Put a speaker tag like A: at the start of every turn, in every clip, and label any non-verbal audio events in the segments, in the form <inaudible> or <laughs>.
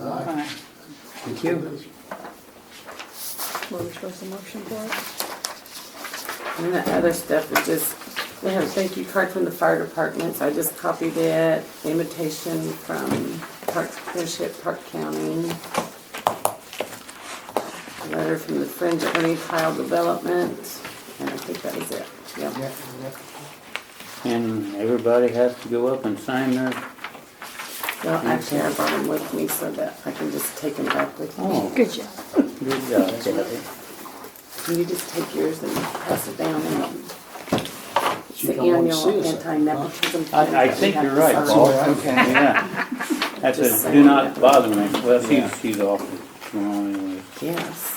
A: Aye.
B: Thank you.
C: Were we supposed to motion for it?
D: And the other stuff is just, they have a thank you card from the fire department, so I just copied it, invitation from Park, Friendship Park County. Letter from the Friends of Ernie Tile Development, and I think that is it, yeah.
A: Yeah, yeah.
B: And everybody has to go up and sign their,
D: Well, actually, I brought them with me so that I can just take them back with me.
B: oh,
C: Good job.
B: good job, Kathy.
D: Can you just take yours and pass it down and it's
A: You
D: the
A: don't wanna see
D: annual
A: us, huh?
D: anti-nepotism. plan
B: I, I
D: that we
B: think
D: have
B: you're
D: to
B: right,
D: sign.
B: Paul.
A: Okay.
B: Yeah. That's
D: Just
B: a, do not
D: saying.
B: bother me. Well, she's,
A: Yeah.
B: she's off tomorrow anyways.
D: Yes.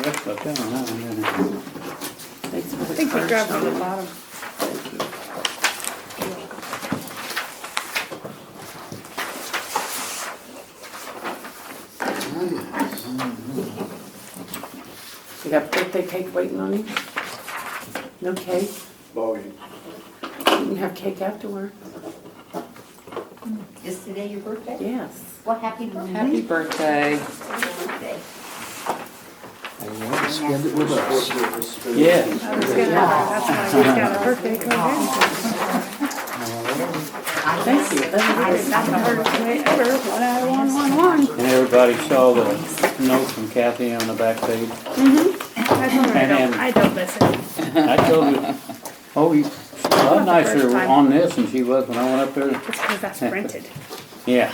B: That's about that, huh? And then-
D: Thanks for the.
C: I think we
D: card,
C: dropped it at the
D: Sean.
C: bottom.
D: Thank you. You got birthday cake waiting on you? No cake?
E: Bowie.
D: You can have cake afterward.
F: Is today your birthday?
D: Yes.
F: Well, happy birthday.
D: Happy birthday.
F: birthday.
A: And you want to spend it with us.
B: Yeah.
C: I was gonna, that's why I got a birthday card.
D: Thank you.
F: I
D: That's
F: stopped
C: I
F: her.
C: heard today ever, one out of one, one, one.
B: And everybody saw the note from Kathy on the back page?
C: I told her I don't, I don't listen.
B: I told her, oh, you, she's a lot nicer on this than she was when I went up there.
C: It's because that's printed.
B: Yeah.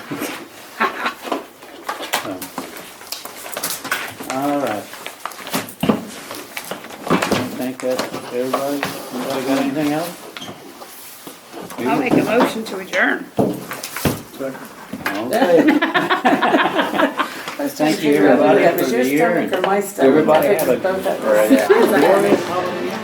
B: So. All right. I think that's everybody, anybody got anything else?
C: I'll make a motion to adjourn. <laughs>
B: Okay, thank you everybody
D: That
B: for
D: was your
B: the year.
D: stomach
B: and
D: or my stomach.
B: Everybody
D: I
B: have a
D: picked both up.
E: Right.
D: It's all right.